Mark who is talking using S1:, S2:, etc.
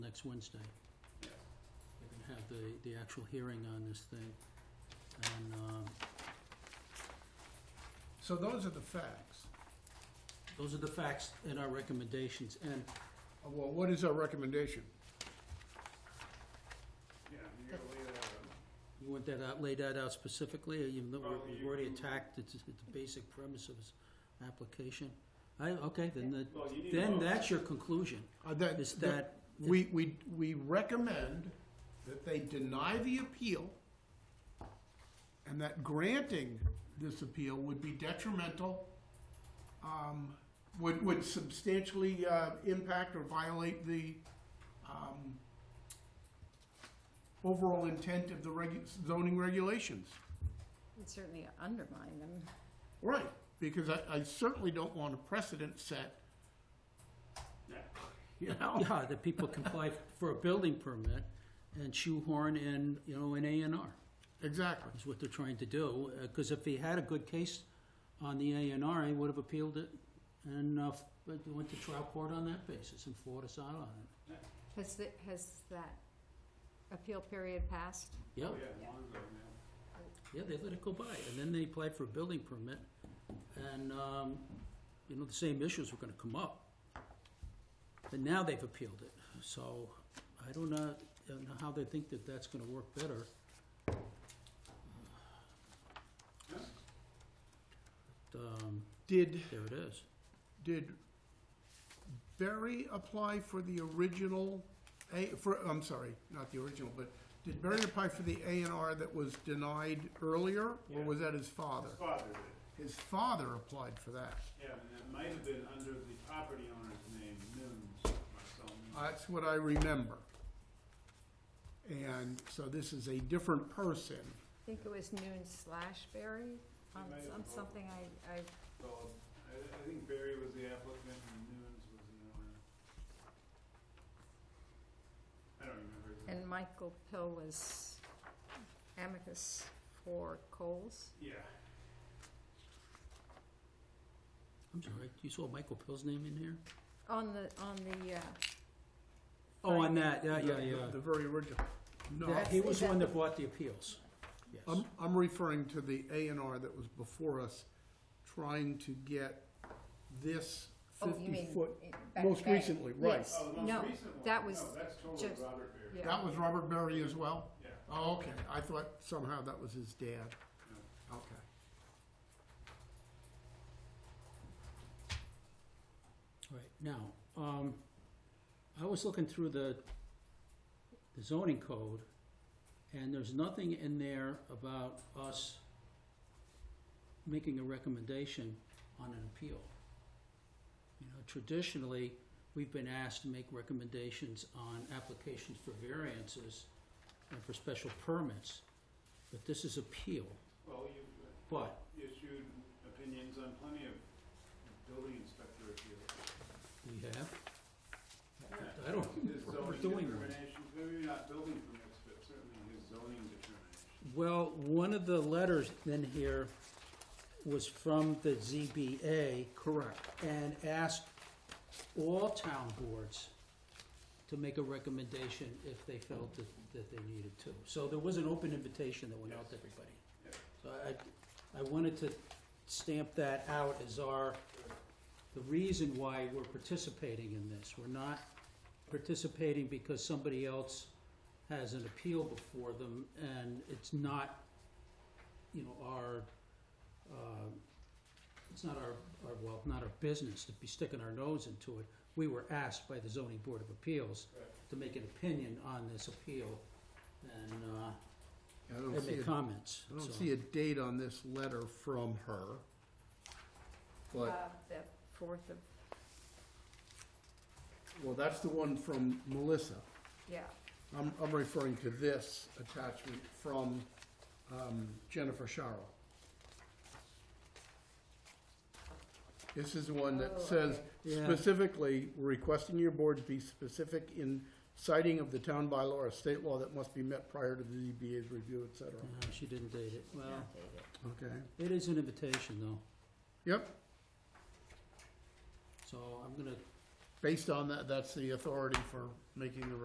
S1: next Wednesday. They're gonna have the, the actual hearing on this thing. And, um,
S2: So those are the facts.
S1: those are the facts and our recommendations, and
S2: Uh, Well, what is our recommendation?
S3: Yeah, you gotta lay that out.
S1: you want that out, lay that out specifically, or you,
S3: Well,
S1: we've
S3: you-
S1: already attacked, it's, it's the basic premise of this application? I, okay, then the,
S3: Well, you need a
S1: then
S3: vote.
S1: that's your conclusion,
S2: Uh, that-
S1: is that,
S2: We, we, we recommend that they deny the appeal and that granting this appeal would be detrimental, um, would, would substantially, uh, impact or violate the, um, overall intent of the regu- zoning regulations.
S4: Would certainly undermine them.
S2: Right, because I, I certainly don't want a precedent set, you know?
S1: yeah, that people can apply for a building permit and shoehorn in, you know, an A and R.
S2: Exactly.
S1: is what they're trying to do, because if he had a good case on the A and R, he would have appealed it and uh, f- but went to trial court on that basis and fought us out on it.
S4: Has that, has that appeal period passed?
S1: Yeah,
S3: Oh, yeah, long ago, yeah.
S1: yeah, they let it go by, and then they applied for a building permit, and, um, you know, the same issues were gonna come up. And now they've appealed it, so I don't know, don't know how they think that that's gonna work better. But, Um,
S2: Did,
S1: there it is.
S2: did Berry apply for the original, A, for, I'm sorry, not the original, but did Berry apply for the A and R that was denied earlier? Or
S3: Yeah.
S2: was that his father?
S3: His father did,
S2: His father applied for that.
S3: yeah, and it might have been under the property owner's name, Nunes, Marcel Nunes.
S2: That's what I remember. And so this is a different person.
S4: I think it was noon slash Barry on
S3: might have
S4: some,
S3: voted.
S4: something I, I,
S3: So, I, I think Barry was the applicant and Nunes was the owner. I don't remember. his name.
S4: and Michael Pill was amicus for Coles.
S3: Yeah,
S1: I'm sorry, you saw Michael Pill's name in here?
S4: On the, on the, uh,
S1: Oh, on that, yeah, yeah,
S2: the-
S1: yeah.
S2: The very original. No,
S1: That- He was the one that Um, brought the appeals. Yes.
S2: I'm, I'm referring to the A and R that was before us, trying to get this
S4: oh, you
S2: fifty
S4: mean.
S2: foot.
S4: in- back-
S2: most
S4: back.
S2: recently, right.
S4: Yes.
S3: oh, the
S4: No,
S3: most recent one,
S4: that
S3: no,
S4: was
S3: that's totally
S4: just-
S3: Robert Barry,
S4: yeah.
S2: That was Robert Berry as well?
S3: yeah.
S2: Oh, okay, I thought somehow that was his dad. Okay.
S1: Right, now, um, I was looking through the the zoning code, and there's nothing in there about us making a recommendation on an appeal. You know, traditionally, we've been asked to make recommendations on applications for variances and for special permits, but this is appeal.
S3: Well, you've uh,
S1: But
S3: issued opinions on plenty of building inspector appeals.
S1: We have?
S3: Yeah.
S1: I don't
S3: His
S1: remember
S3: zoning
S1: doing one.
S3: determinations, maybe not building permits, but certainly his zoning determinations.
S1: Well, one of the letters in here was from the ZBA
S2: Correct.
S1: and asked all town boards to make a recommendation if they felt that, that they needed to. So there was an open invitation that went out to everybody.
S3: Yeah.
S1: So I, I wanted to stamp that out as our, the reason why we're participating in this. We're not participating because somebody else has an appeal before them and it's not, you know, our, uh, it's not our, our, well, not our business to be sticking our nose into it. We were asked by the zoning board of appeals
S3: Correct.
S1: to make an opinion on this appeal and, uh,
S2: I don't
S1: and
S2: see,
S1: make
S2: a-
S1: comments.
S2: I don't
S1: so-
S2: see a date on this letter from her. But,
S4: Uh, The fourth of,
S2: well, that's the one from Melissa.
S4: yeah,
S2: I'm, I'm referring to this attachment from um, Jennifer Sharrow. This is the one
S4: Oh,
S2: that says
S4: okay.
S1: Yeah.
S2: specifically, we're requesting your board be specific in citing of the town bylaw or state law that must be met prior to the ZBA's review, et cetera.
S1: No, she didn't date it. Well,
S4: not dated.
S2: Okay,
S1: it is an invitation though,
S2: yep,
S1: so I'm gonna
S2: based on that, that's the authority for making the